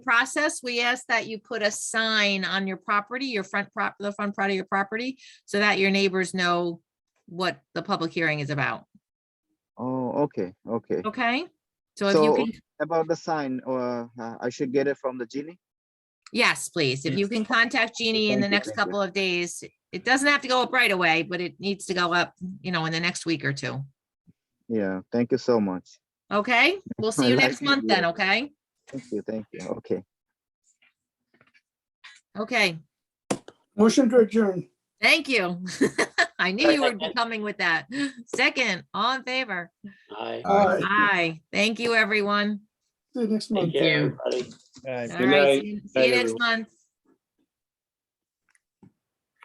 process, we ask that you put a sign on your property, your front prop, the front part of your property, so that your neighbors know what the public hearing is about, Oh, okay, okay. okay? So if you So- can, About the sign, or uh, I should get it from the genie? yes, please, if you can contact Jeannie in the Thank you, next thank you. couple of days, it doesn't have to go up right away, but it needs to go up, you know, in the next week or two. Yeah, thank you so much. Okay, we'll see I you like next the month then, idea. okay? Thank you, thank you. Okay. Okay, Motion to adjourn. thank you. I knew you were Second. coming with that. Second, all in favor? Hi. Aye. Aye, thank you, everyone. See you next month. Take care, everybody. All right, see you- see you next month.